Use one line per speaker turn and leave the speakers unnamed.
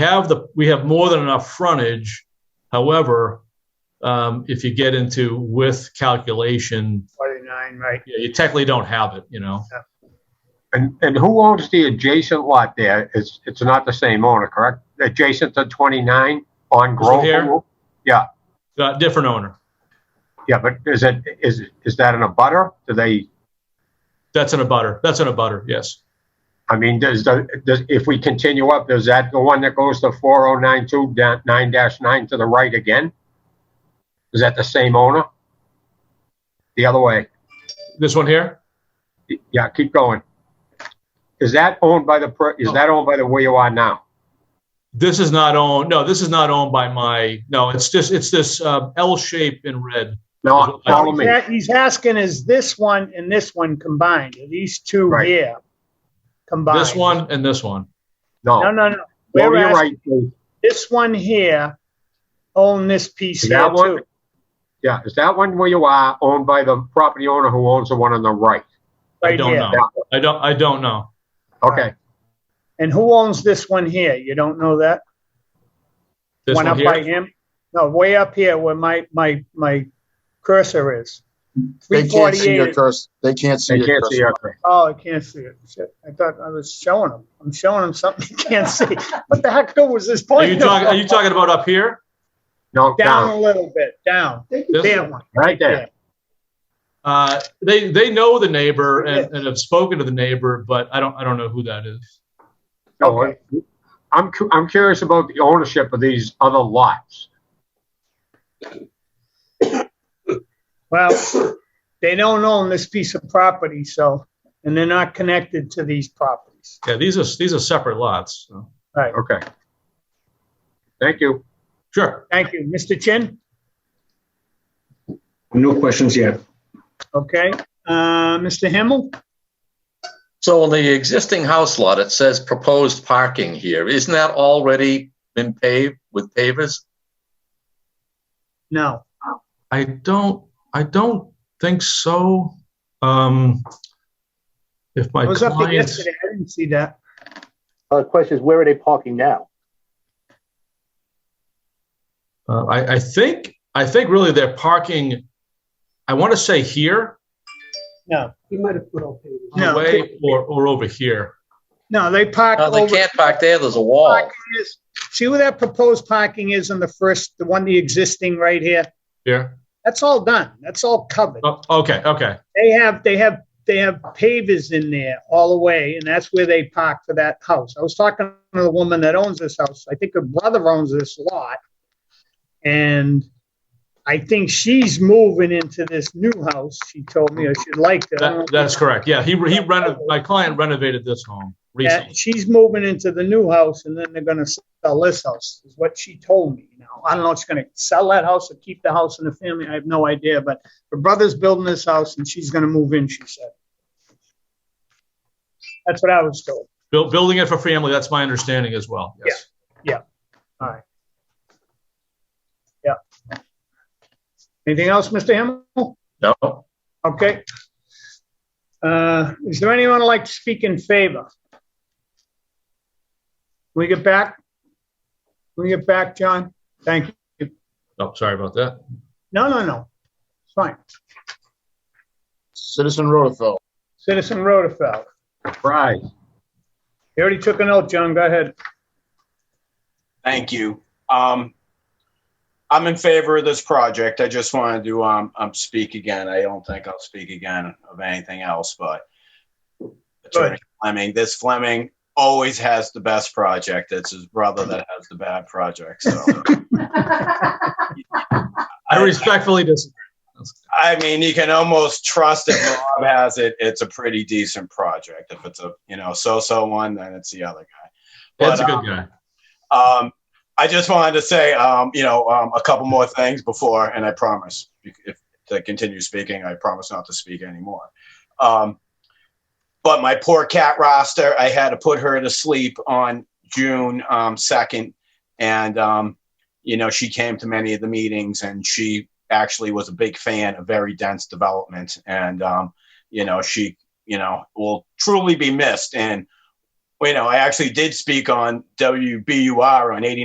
have the, we have more than enough frontage. However, um, if you get into width calculation,
49, right?
you you technically don't have it, you know?
And, and who owns the adjacent lot there? It's, it's not the same owner, correct? Adjacent to 29 on
here?
Grove? Yeah,
Uh, different owner.
yeah, but is it, is, is that in a butter? Do they,
That's in a butter. That's in a butter, yes.
I mean, does, the- does, if we continue up, does that, the one that goes to 4092, da- 9-9 to the right again? Is that the same owner? The other way?
This one here?
Yeah, keep going. Is that owned by the, per- is that owned by the where you are now?
This is not owned, no, this is not owned by my, no, it's just, it's this uh, L shape in red.
No, follow me.
Yeah, He's asking, is this one and this one combined? Are these two
Right.
here combined?
This one and this one.
No,
No,
no, no.
no,
We're
you're
asking
right. Dave.
this one here own this piece
Is
here
that one?
too.
Yeah, is that one where you are owned by the property owner who owns the one on the right?
I
Right
don't
here.
know. I don't, I don't know.
Okay,
And who owns this one here? You don't know that?
This
one
one
up by
here?
him? No, way up here where my, my, my cursor is.
They can't see your
348.
cursor. They can't see
they
your
can't see
cursor.
your cursor.
Oh, I can't see it. Shit, I thought I was showing him. I'm showing him something he can't see. What the heck was this
Are
point?
you talking, are you talking about up here?
No,
Down a
down,
little bit, down.
This-
There one.
right there.
Uh, they they know the neighbor and, and have spoken to the neighbor, but I don't I don't know who that is.
No, I'm, cu- I'm curious about the ownership of these other lots.
Well, they don't own this piece of property, so, and they're not connected to these properties.
Yeah, these are these are separate lots. so.
Right.
Okay. Thank you.
Sure.
Thank you. Mr. Chin?
No questions yet.
Okay. Uh, Mr. Himmel?
So on the existing house lot, it says proposed parking here. Isn't that already been paved with pavers?
No.
I don't I don't think so. Um, if my
I was up there
client,
yesterday. I didn't see that.
Uh, The question is, where are they parking now?
uh, I I think I think really they're parking. I want to say here,
No.
no.
No.
away, or or over here.
No, they park
No, they
over.
can't park there. There's a wall.
parking is- See where that proposed parking is on the first, the one, the existing right here?
Here.
That's all done. That's all covered.
Oh, okay. Okay.
They have, they have, they have pavers in there all the way, and that's where they park for that house. I was talking to the woman that owns this house. I think her brother owns this lot. And I think she's moving into this new house, she told me, or she'd like to. I don't know
That,
if
that's correct. Yeah. He he renov- My client renovated this home
Yeah,
recently.
she's moving into the new house and then they're gonna sell this house, is what she told me. Now, I don't know if she's gonna sell that house or keep the house in the family, I have no idea, but her brother's building this house and she's gonna move in, she said. That's what I was told.
Buil- building it for family. That's my understanding as well. Yes.
Anything else, Mr. Himmel?
No.
Okay. Uh, is there anyone who'd like to speak in favor? We get back? We get back, John? Thank you.
Oh, sorry about that.
No, no, no. It's fine.
Citizen Rutherford.
Citizen Rotafeld.
Right.
You already took an oath, John. Go ahead.
Thank you. Um, I'm in favor of this project. I just wanted to, um, um, speak again. I don't think I'll speak again of anything else, but Attorney Fleming, this Fleming always has the best project. It's his brother that has the bad project, so.
I respectfully disagree.
I mean, you can almost trust if Rob has it, it's a pretty decent project. If it's a, you know, so-so one, then it's the other guy.
That's a
But,
good guy.
Um, I just wanted to say, um, you know, um, a couple more things before, and I promise, if I continue speaking, I promise not to speak anymore. Um, but my poor cat roster, I had to put her to sleep on June um, 2nd. And, um, you know, she came to many of the meetings and she actually was a big fan of very dense development. And, um, you know, she, you know, will truly be missed. And you know, I actually did speak on WBUR on 89.